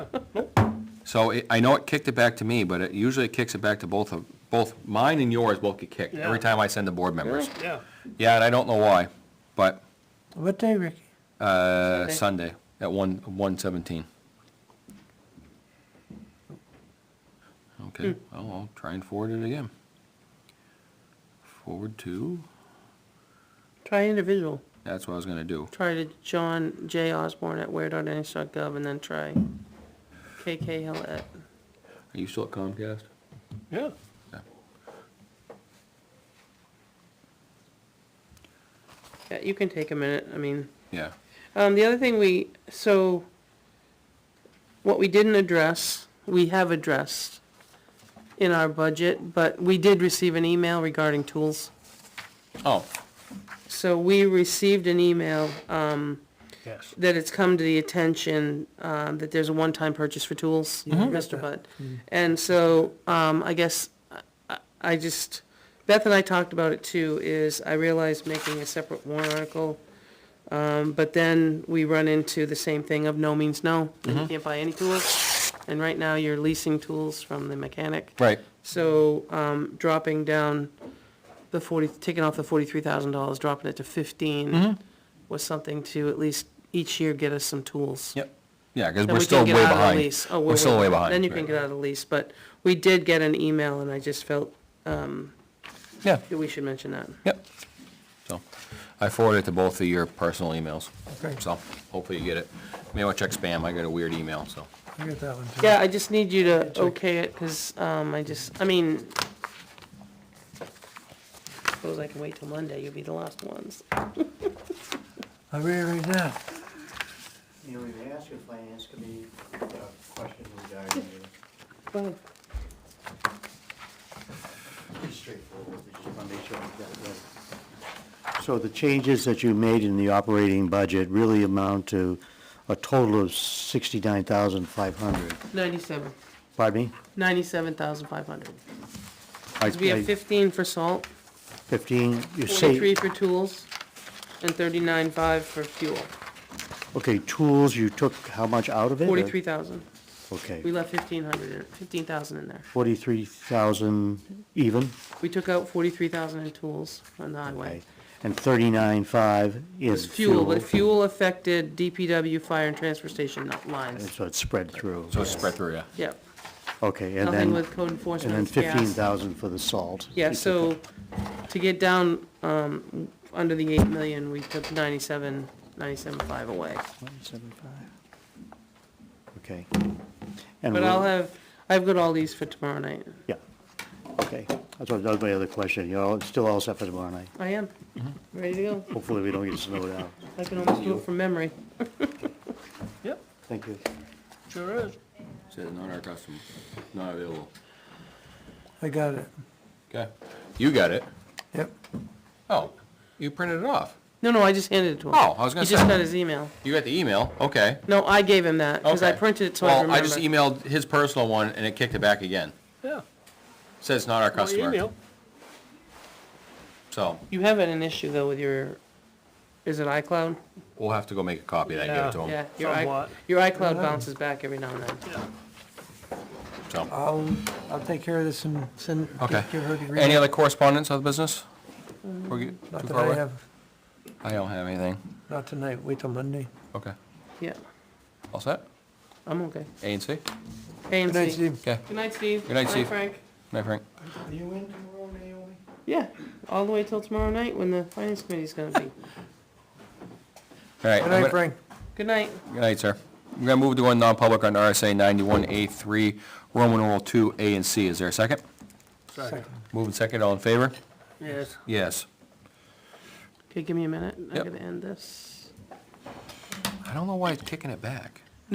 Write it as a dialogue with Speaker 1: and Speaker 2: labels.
Speaker 1: So it- I know it kicked it back to me, but it usually kicks it back to both of, both mine and yours both get kicked every
Speaker 2: Yeah.
Speaker 1: time I send the board members.
Speaker 2: Yeah.
Speaker 1: Yeah, and I don't know why, but
Speaker 3: What day, Ricky?
Speaker 1: uh, Sunday at one, one seventeen. Okay,
Speaker 3: Hmm.
Speaker 1: well, I'll try and forward it again. Forward to,
Speaker 3: Try individual.
Speaker 1: that's what I was gonna do.
Speaker 3: Try to John J. Osborne at where.nh.gov and then try KK Hill at.
Speaker 1: Are you still at Comcast?
Speaker 2: Yeah.
Speaker 3: Yeah, you can take a minute, I mean.
Speaker 1: Yeah,
Speaker 3: Um, the other thing we, so, what we didn't address, we have addressed in our budget, but we did receive an email regarding tools.
Speaker 1: oh,
Speaker 3: So we received an email, um,
Speaker 2: Yes.
Speaker 3: that it's come to the attention, um, that there's a one-time purchase for tools, Mr. Butt. And so, um, I guess, I- I, I just, Beth and I talked about it too, is I realized making a separate warrant article, um, but then we run into the same thing of no means no, and you can't buy any tools. And right now, you're leasing tools from the mechanic.
Speaker 1: right,
Speaker 3: So, um, dropping down the forty, taking off the forty-three thousand dollars, dropping it to fifteen
Speaker 1: Mm-hmm.
Speaker 3: was something to at least each year get us some tools.
Speaker 1: yep, yeah, because
Speaker 3: Then
Speaker 1: we're
Speaker 3: we
Speaker 1: still
Speaker 3: can
Speaker 1: way
Speaker 3: get out of the
Speaker 1: behind.
Speaker 3: lease. Oh,
Speaker 1: We're still way behind.
Speaker 3: Then you can
Speaker 1: right.
Speaker 3: get out of the lease, but we did get an email and I just felt
Speaker 1: Yeah,
Speaker 3: that we should mention that.
Speaker 1: yep. So, I forwarded it to both of your personal emails,
Speaker 2: Okay.
Speaker 1: so hopefully you get it. May want to check spam, I got a weird email, so.
Speaker 2: I get that one too.
Speaker 3: Yeah, I just need you to okay it, cause, um, I just, I mean, suppose I can wait till Monday, you'll be the last ones.
Speaker 2: I read it right now.
Speaker 4: You know, we may ask the finance committee a question regarding,
Speaker 3: Well,
Speaker 4: it's straightforward, we just want to make sure we get it right. So the changes that you made in the operating budget really amount to a total of sixty-nine thousand five hundred.
Speaker 3: ninety-seven,
Speaker 4: Pardon me?
Speaker 3: ninety-seven thousand five hundred.
Speaker 4: I-
Speaker 3: Because we
Speaker 4: I-
Speaker 3: have 15 for salt,
Speaker 4: Fifteen, you
Speaker 3: 43
Speaker 4: say,
Speaker 3: for tools, and 39.5 for fuel,
Speaker 4: okay, tools, you took how much out of it?
Speaker 3: 43,000.
Speaker 4: Okay,
Speaker 3: We left 1,500, in- 15,000 in there.
Speaker 4: forty-three thousand even,
Speaker 3: We took out 43,000 in tools on the
Speaker 4: okay,
Speaker 3: highway.
Speaker 4: and thirty-nine five
Speaker 3: It's
Speaker 4: is
Speaker 3: fuel, but fuel affected DPW, fire, and transfer station not
Speaker 4: And
Speaker 3: lines.
Speaker 4: So it's spread through.
Speaker 1: So it's spread through, yeah.
Speaker 3: Yep,
Speaker 4: Okay, and
Speaker 3: nothing
Speaker 4: then,
Speaker 3: with code
Speaker 4: and
Speaker 3: enforcement,
Speaker 4: then
Speaker 3: it's gas.
Speaker 4: fifteen thousand for the salt.
Speaker 3: Yeah,
Speaker 4: You took
Speaker 3: so to get down um, under the 8 million, we took 97, 97.5 away.
Speaker 4: Okay.
Speaker 3: But
Speaker 4: And we'll-
Speaker 3: I'll have, I've got all these for tomorrow night.
Speaker 4: Yeah, okay. That's what, that was my other question. You're all, still all set for tomorrow night.
Speaker 3: I am,
Speaker 4: Mm-hmm.
Speaker 3: ready to go.
Speaker 4: Hopefully, we don't get snowed out.
Speaker 3: I can almost do it from memory.
Speaker 2: Yep,
Speaker 4: Thank you.
Speaker 2: sure is.
Speaker 1: Says not our customer, not available.
Speaker 5: I got it.
Speaker 1: Okay, you got it.
Speaker 5: Yep.
Speaker 1: Oh, you printed it off.
Speaker 3: No, no, I just handed it to him.
Speaker 1: Oh, I was gonna
Speaker 3: He just
Speaker 1: say.
Speaker 3: got his email.
Speaker 1: You got the email, okay.
Speaker 3: No, I gave him that, because I
Speaker 1: okay.
Speaker 3: printed it so I
Speaker 1: Well, I just
Speaker 3: remember.
Speaker 1: emailed his personal one and it kicked it back again.
Speaker 2: Yeah.
Speaker 1: Says not our
Speaker 2: My
Speaker 1: customer,
Speaker 2: email.
Speaker 1: so
Speaker 3: You have an issue, though, with your, is it iCloud?
Speaker 1: we'll have to go make a copy of that, and give it to
Speaker 3: Yeah,
Speaker 1: him,
Speaker 3: your i-
Speaker 2: Somewhat.
Speaker 3: your iCloud bounces back every now and then.
Speaker 1: so.
Speaker 5: I'll, I'll take care of this and send,
Speaker 1: Okay.
Speaker 5: give her the green.
Speaker 1: Any other correspondence, other business?
Speaker 3: Mm,
Speaker 1: We're get-
Speaker 5: Not
Speaker 1: too
Speaker 5: that
Speaker 1: far
Speaker 5: I
Speaker 1: away?
Speaker 5: have,
Speaker 1: I don't have anything,
Speaker 5: not tonight, wait till Monday.
Speaker 1: okay.
Speaker 3: Yeah,
Speaker 1: All set?
Speaker 3: I'm okay.
Speaker 1: A and C?
Speaker 3: Hey, and
Speaker 5: Good night,
Speaker 3: Steve.
Speaker 5: Steve.
Speaker 1: Okay,
Speaker 3: Good night, Steve.
Speaker 1: Good night, Steve.
Speaker 3: Frank.
Speaker 1: night Frank.
Speaker 4: Are you in tomorrow, Naomi?
Speaker 3: Yeah, all the way till tomorrow night when the finance committee's gonna be.
Speaker 1: All right.
Speaker 5: Good
Speaker 1: I'm
Speaker 5: night,
Speaker 1: gonna-
Speaker 5: Frank.
Speaker 3: Good night.
Speaker 1: Good night, sir. We're gonna move to one non-public under RSA ninety-one A three, Roman numeral two, A and C. Is there a second?
Speaker 2: Second.
Speaker 1: Moving second, all in favor?
Speaker 2: Yes.
Speaker 1: Yes.
Speaker 3: Okay, give me a minute. I'm
Speaker 1: Yep.
Speaker 3: gonna end this.
Speaker 1: I don't know why it's kicking it back.